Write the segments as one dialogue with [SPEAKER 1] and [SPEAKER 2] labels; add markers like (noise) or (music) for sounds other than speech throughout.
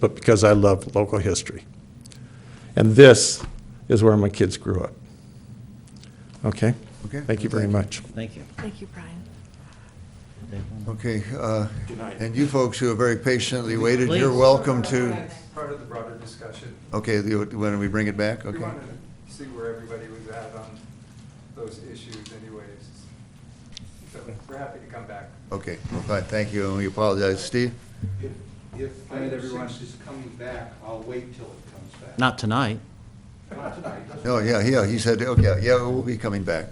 [SPEAKER 1] but because I love local history. And this is where my kids grew up. Okay?
[SPEAKER 2] Okay.
[SPEAKER 1] Thank you very much.
[SPEAKER 3] Thank you.
[SPEAKER 4] Thank you, Brian.
[SPEAKER 2] Okay, uh, and you folks who have very patiently waited, you're
[SPEAKER 3] Please.
[SPEAKER 2] welcome to,
[SPEAKER 5] Part of the broader discussion,
[SPEAKER 2] okay, you- when we bring it back,
[SPEAKER 5] we
[SPEAKER 2] okay?
[SPEAKER 5] wanted to see where everybody was at on those issues anyways. So we're happy to come back.
[SPEAKER 2] Okay, well, fine, thank you, and we apologize. Steve?
[SPEAKER 6] If, if item six is coming back, I'll wait till it comes back.
[SPEAKER 3] Not tonight.
[SPEAKER 6] Not tonight.
[SPEAKER 2] No, yeah, yeah, he said, okay, yeah, we'll be coming back.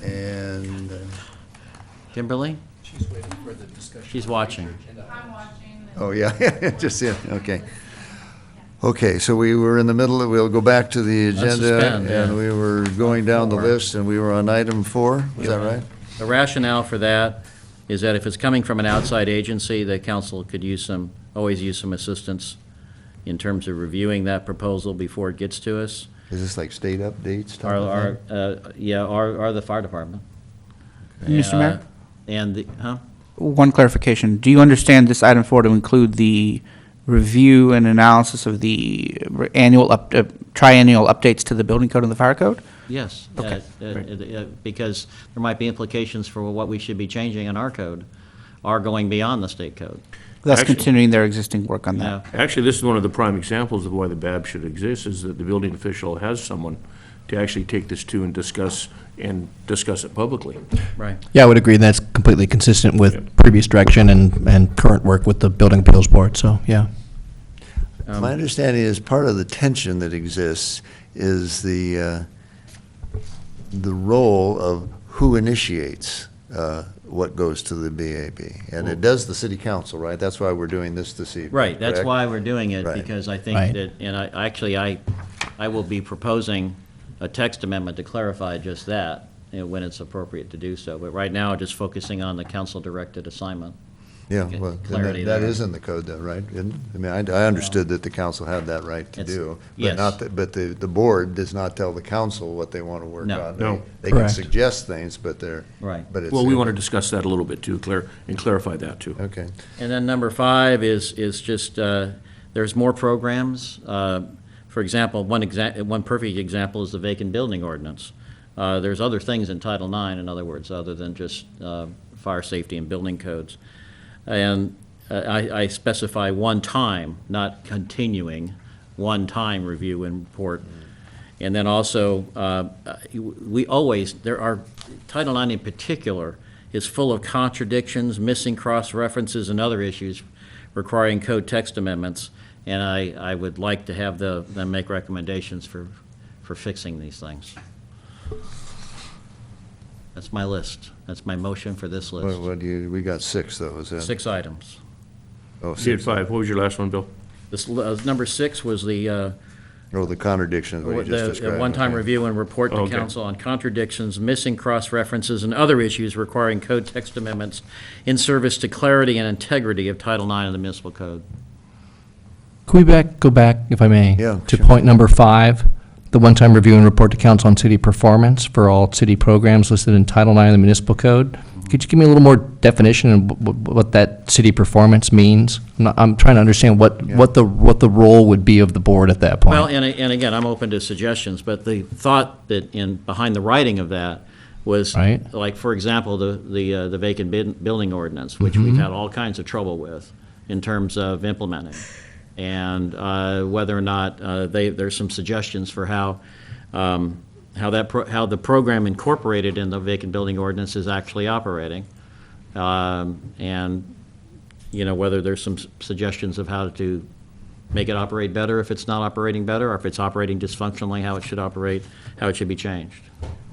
[SPEAKER 2] And, uh,
[SPEAKER 3] Kimberly? She's watching.
[SPEAKER 7] I'm watching. and-
[SPEAKER 2] oh, yeah, (laughs) just, in. okay. Okay, so we were in the middle, of- we'll go back to the agenda,
[SPEAKER 3] suspend, yeah.
[SPEAKER 2] and we were going down the
[SPEAKER 3] Four.
[SPEAKER 2] list, and we were on item four, is that right?
[SPEAKER 3] The rationale for that is that if it's coming from an outside agency, the council could use some, always use some assistance in terms of reviewing that proposal before it gets to us.
[SPEAKER 2] Is this like state updates? type
[SPEAKER 3] Our,
[SPEAKER 2] of thing?
[SPEAKER 3] our, uh, yeah, our, our the fire department.
[SPEAKER 8] Mr. Mayor,
[SPEAKER 3] Uh, And, the huh?
[SPEAKER 8] one clarification. Do you understand this item four to include the review and analysis of the annual, up- uh, triennial updates to the building code and the fire code?
[SPEAKER 3] Yes.
[SPEAKER 8] Okay,
[SPEAKER 3] uh, uh, uh, Because there might be implications for what we should be changing in our code, or going beyond the state code.
[SPEAKER 8] Thus
[SPEAKER 9] Actually-
[SPEAKER 8] continuing their existing work on
[SPEAKER 3] Now,
[SPEAKER 8] that.
[SPEAKER 9] Actually, this is one of the prime examples of why the BAB should exist, is that the building official has someone to actually take this to and discuss, and discuss it publicly.
[SPEAKER 3] right.
[SPEAKER 10] Yeah, I would agree. That's completely consistent with previous direction and, and current work with the Building Appeals Board, so, yeah.
[SPEAKER 3] Um,
[SPEAKER 2] My understanding is part of the tension that exists is the, uh, the role of who initiates uh, what goes to the BAB. And it does the city council, right? That's why we're doing this this evening.
[SPEAKER 3] Right, that's
[SPEAKER 2] correct?
[SPEAKER 3] why we're doing it,
[SPEAKER 2] Right.
[SPEAKER 3] because I think
[SPEAKER 10] Right.
[SPEAKER 3] that, and I, actually, I, I will be proposing a text amendment to clarify just that, you know, when it's appropriate to do so. But right now, just focusing on the council-directed assignment.
[SPEAKER 2] Yeah,
[SPEAKER 3] get
[SPEAKER 2] well, then
[SPEAKER 3] clarity
[SPEAKER 2] that that
[SPEAKER 3] there.
[SPEAKER 2] is in the code though, right? Isn't- I mean, I I understood that the council had that right to
[SPEAKER 3] It's-
[SPEAKER 2] do.
[SPEAKER 3] yes.
[SPEAKER 2] But not, that- but the, the board does not tell the council what they want to work
[SPEAKER 3] No.
[SPEAKER 2] on.
[SPEAKER 9] No.
[SPEAKER 2] They they can
[SPEAKER 10] Correct.
[SPEAKER 2] suggest things, but they're,
[SPEAKER 3] Right.
[SPEAKER 2] but it's.
[SPEAKER 9] Well, we want to discuss that a little bit too, clar, and clarify that
[SPEAKER 3] Uh,
[SPEAKER 9] too.
[SPEAKER 2] Okay.
[SPEAKER 3] And then number five is, is just, uh, there's more programs. Uh, For example, one exa, one perfect example is the vacant building ordinance. Uh, There's other things in Title IX, in other words, other than just uh, fire safety and building codes. And uh, I, I specify one time, not continuing, one time review and report. And then also, uh, we always, there are, Title IX in particular is full of contradictions, missing cross-references, and other issues requiring code text amendments, and I, I would like to have the, them make recommendations for, for fixing these things. That's my list. That's my motion for this
[SPEAKER 2] What,
[SPEAKER 3] list.
[SPEAKER 2] what do you, we got six though, is that?
[SPEAKER 3] Six items.
[SPEAKER 2] Oh,
[SPEAKER 9] You had
[SPEAKER 2] six.
[SPEAKER 9] five, what was your last one, Bill?
[SPEAKER 3] This, l- uh, number six was the, uh,
[SPEAKER 2] Oh, the contradiction of what you just
[SPEAKER 3] The-
[SPEAKER 2] described.
[SPEAKER 3] The one-time
[SPEAKER 2] okay.
[SPEAKER 3] review and report to
[SPEAKER 9] Okay.
[SPEAKER 3] council on contradictions, missing cross-references, and other issues requiring code text amendments in service to clarity and integrity of Title IX of the municipal code.
[SPEAKER 10] Can we back, go back, if I may?
[SPEAKER 2] Yeah,
[SPEAKER 10] To
[SPEAKER 2] sure.
[SPEAKER 10] point number five, the one-time review and report to council on city performance for all city programs listed in Title IX of the Municipal Code. Could you give me a little more definition of wh- wh- what that city performance means? I'm not- I'm trying to understand what, what the, what the role would be of the board at that point.
[SPEAKER 3] Well, and, and again, I'm open to suggestions, but the thought that in, behind the writing of that was,
[SPEAKER 10] Right.
[SPEAKER 3] like, for example, the, the uh, the vacant bin- building ordinance, which we've had all kinds of trouble with in terms of implementing. And uh, whether or not, uh, they, there's some suggestions for how, um, how that, pro- how the program incorporated in the vacant building ordinance is actually operating. Um, And, you know, whether there's some s- suggestions of how to make it operate better if it's not operating better, or if it's operating dysfunctionally, how it should operate, how it should be changed.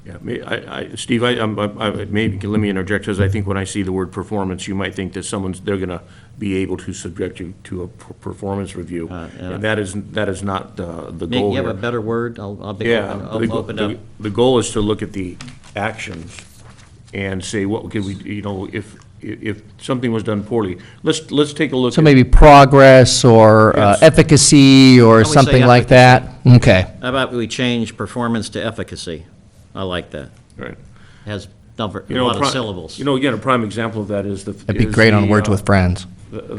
[SPEAKER 9] Yeah, me, I, I, Steve, I, I'm- I, I- maybe, let me interject, because I think when I see the word performance, you might think that someone's, they're gonna be able to subject you to a per- performance review.
[SPEAKER 3] Uh, yeah.
[SPEAKER 9] And that is, that is not uh, the
[SPEAKER 3] Nick,
[SPEAKER 9] goal
[SPEAKER 3] you
[SPEAKER 9] here.
[SPEAKER 3] have a better word? I'll, I'll be,
[SPEAKER 9] Yeah.
[SPEAKER 3] I'll
[SPEAKER 9] the
[SPEAKER 3] I'll
[SPEAKER 9] go-
[SPEAKER 3] open
[SPEAKER 9] the-
[SPEAKER 3] up.
[SPEAKER 9] The goal is to look at the actions and say, what could we, you know, if, if something was done poorly, let's, let's take a look.
[SPEAKER 10] So
[SPEAKER 9] at-
[SPEAKER 10] maybe progress or uh,
[SPEAKER 9] Yes.
[SPEAKER 10] efficacy or
[SPEAKER 3] say
[SPEAKER 10] something like that? Okay.
[SPEAKER 3] How about we change performance to efficacy? I like that.
[SPEAKER 9] Right.
[SPEAKER 3] Has number, a
[SPEAKER 9] You know,
[SPEAKER 3] lot
[SPEAKER 9] pri-
[SPEAKER 3] of syllables.
[SPEAKER 9] You know, again, a prime example of that is the.
[SPEAKER 10] That'd be
[SPEAKER 9] is
[SPEAKER 10] great on
[SPEAKER 9] the,
[SPEAKER 10] Words
[SPEAKER 9] uh,
[SPEAKER 10] with Friends.
[SPEAKER 9] the-